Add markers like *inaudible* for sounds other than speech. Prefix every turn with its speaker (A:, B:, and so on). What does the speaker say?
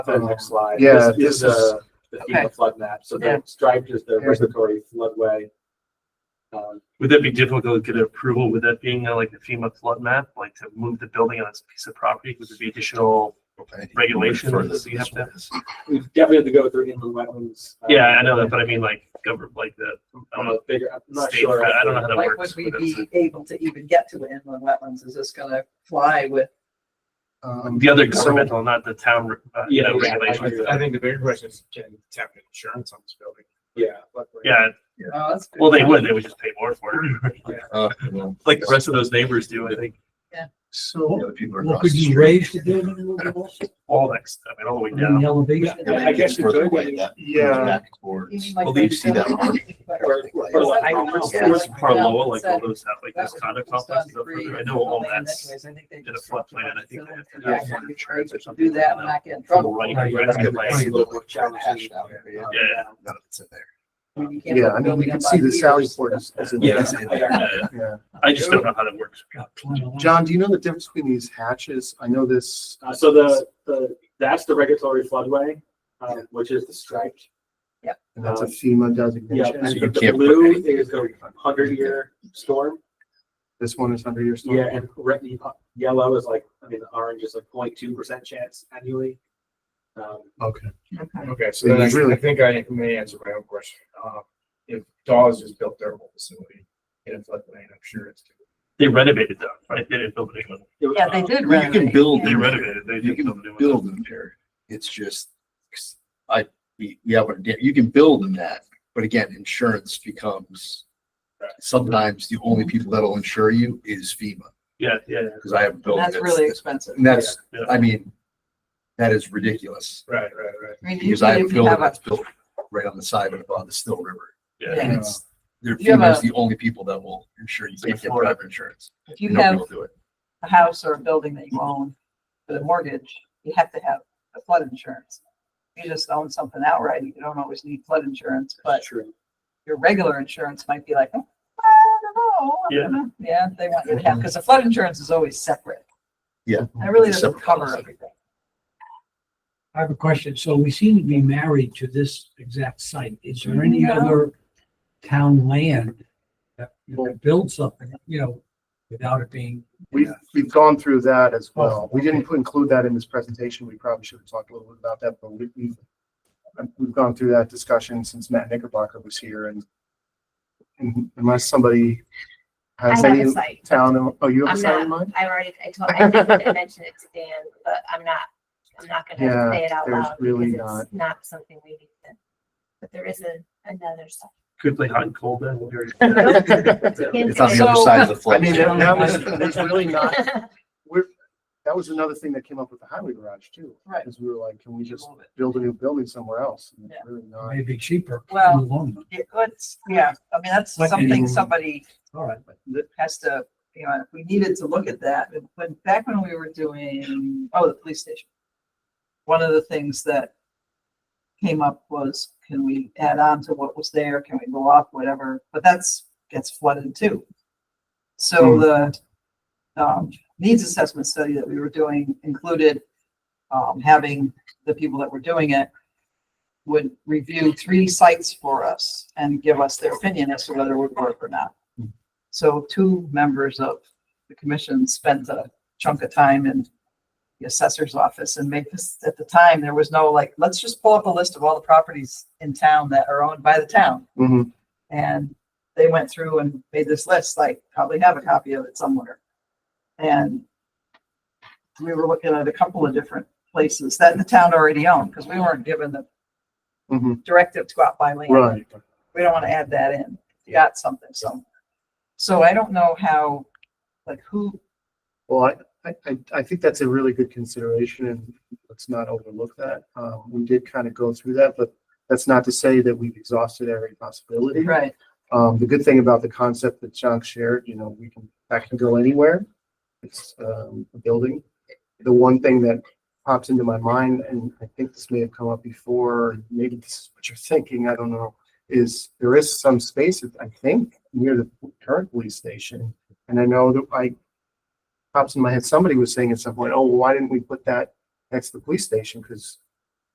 A: the next slide. This
B: Yeah,
A: is
B: this is-
A: the, the
C: Okay.
A: FEMA flood map. So
C: Yeah.
A: the striped is the
B: Yeah.
A: respiratory floodway. Um,
D: Would that be difficult to get approval with that being uh, like the FEMA flood map, like to move the building on its piece of property? Would there be additional regulations you have to?
A: we definitely have to go through inland wetlands. uh,
D: Yeah, I know that, but I mean like government, like the, I don't
A: I'm
D: know,
A: a bigger, I'm not
D: state,
A: sure.
D: I don't know how that
C: Like, would
D: works.
C: we
D: but it's-
C: be able to even get to inland wetlands? Is this gonna fly with?
B: Um,
D: The other
B: so-
D: governmental, not the town, uh, you
A: Yeah,
D: know,
A: yeah, I
D: regulations.
A: agree.
E: I think the bigger question is can tap insurance on this building.
A: Yeah. luckily.
D: Yeah,
C: Oh, that's good.
D: well, they would, they would just pay more for it,
F: Uh, well,
D: like the rest of those neighbors do, I think,
F: the
E: So
F: other people are
G: Well,
F: across the
G: could you
F: street.
G: raise the building a little bit?
D: all next, I mean, all the way
G: I mean,
D: down.
G: elevate it?
C: Yeah,
A: I guess you
F: Further
A: could,
F: away,
A: yeah.
F: that moves
B: Yeah.
F: back
C: You
F: towards-
C: mean like
F: Well, you see that
C: maybe-
F: mark?
A: Or, or like,
C: I don't know.
D: Where's- Where's Parloa, like all those have like
C: That
D: those
C: was
D: condo
C: almost done
D: complexes up
C: free.
D: there, I know all
C: Anyways,
D: that's.
C: I think they
D: in a
C: just-
D: flood plan, I think they have to do
C: Yeah,
D: some
C: if you
D: insurance or something.
C: Do that and not get in trouble.
D: Right,
G: Right,
D: right,
F: that's
D: right,
F: good.
D: right.
F: Right.
A: a little more challenging.
D: Yeah.
F: None of it's in there.
C: When you can't
B: Yeah,
C: put
B: I mean, we
C: building
B: can
C: up
B: see
C: on
B: the Sally
C: piers.
B: Port is, is in
A: Yeah.
B: there.
F: It's in
A: I-
C: *laughs*
F: there.
D: Uh,
B: Yeah.
D: I just don't know how that works.
G: Got plenty of-
B: John, do you know the difference between these hatches? I know this.
A: Uh, so the, the, that's the regulatory floodway,
B: Yeah.
A: um, which is the striped.
B: And that's a FEMA
A: Yeah,
B: designation.
A: and
F: you
A: the
F: can't put
A: blue
F: anything
A: is the hundred year storm.
B: This one is under your storm.
A: Yeah, and red, yellow is like, I mean, the orange is like 0.2 percent chance annually. Um,
B: Okay.
E: Okay, so
B: Yeah,
E: then I
B: it's really-
E: I think I may answer my own question. Uh, if Dawes just built their whole facility in a floodplain, I'm sure it's.
D: They renovated though, right? They didn't build a new one.
A: it was-
C: Yeah, they did.
F: Well, You can
C: renovate.
F: build,
D: They
F: them there.
D: renovated, they
F: you
D: didn't
F: can
D: build a new one.
F: build them there. It's just, I, we we have, a di- you can build in that, but again, insurance becomes sometimes the only people that'll insure you is FEMA,
D: Yeah, yeah, yeah.
F: because I have a building.
C: That's really expensive.
F: And that's,
D: Yeah.
F: I mean, that is ridiculous.
E: Right, right, right.
C: I mean,
F: Because
C: usually
F: I have a
C: if you
F: building
C: have a,
F: that's built right on the side of, on the Still River.
D: Yeah.
F: And it's, they're
C: You have
F: FEMA is
C: a-
F: the only people that will insure you. You can't get private insurance.
C: if you
F: Nobody
C: have
F: will do it.
C: a house or a building that you own with a mortgage, you have to have a flood insurance. If You just own something outright, you don't always need flood insurance, but
A: True.
C: your regular insurance might be like, "Oh, I
D: Yeah.
C: don't know. I'm gonna-" Yeah, they want you to have, because the flood insurance is always separate.
F: Yeah.
C: It really
F: It's a
C: doesn't
F: separate
C: cover
F: policy.
C: everything.
G: I have a question. So we seem to be married to this exact site. Is there any
C: No.
G: other town land that you can build something, you know, without it being,
B: We've, we've gone through that as well. We didn't put- include that in this presentation. We probably should have talked a little bit about that, but we, we've, we've gone through that discussion since Matt Knickerbocker was here and and unless somebody
H: I
B: has
H: have a
B: any
H: site.
B: town, oh, you have a
H: I'm
B: site in
H: not- *laughs*
B: mind?
H: I already,
B: *laughs*
H: I told, I think I mentioned it to Dan, but I'm not, I'm not
B: Yeah,
H: gonna say it out
B: there's
H: loud.
B: really
H: because
B: not-
H: it's Not something we need to, but there is a, another site.
D: Could play hot and cold then. we'll hear it. *laughs*
H: *laughs*
F: It's on the other side of the
B: I
F: flood.
B: mean,
F: zone.
B: that that was, there's really not,
H: *laughs*
B: we're, that was another thing that came up with the highway garage too.
C: Right.
B: Because we were like, can we just build a new building somewhere else? And it's really not.
G: maybe cheaper? in the
C: Well-
G: long run?
C: It, it's, yeah, I mean, that's
G: Like
C: something
G: anything.
C: somebody
G: All right.
C: that has to, you know, we needed to look at that. But When, back when we were doing, oh, the police station. One of the things that came up was, can we add on to what was there? Can we go off whatever? But that's, gets flooded too. So the, um, needs assessment study that we were doing included, um, having the people that were doing it would review three sites for us and give us their opinion as to whether it would work or not. So two members of the commission spent a chunk of time in the assessor's office and make this, at the time, there was no like, let's just pull up a list of all the properties in town that are owned by the town.
B: Mhm.
C: And they went through and made this list, like probably have a copy of it somewhere. And we were looking at a couple of different places that the town already owned, because we weren't given the
B: Mhm.
C: directive to go out by land
B: Right.
C: we don't want to add that in. You Got something, so. So I don't know how, like who,
B: Well, I- I, I, I think that's a really good consideration and let's not overlook that. Um, we did kind of go through that, but that's not to say that we've exhausted every possibility.
C: right,
B: Um, the good thing about the concept that Chuck shared, you know, we can, that can go anywhere. It's, um, a building. The one thing that pops into my mind, and I think this may have come up before, maybe this is what you're thinking, I don't know, is there is some space, I think, near the current police station. And I know that I, pops in my head, somebody was saying at some point, oh, why didn't we put that next to the police station? Because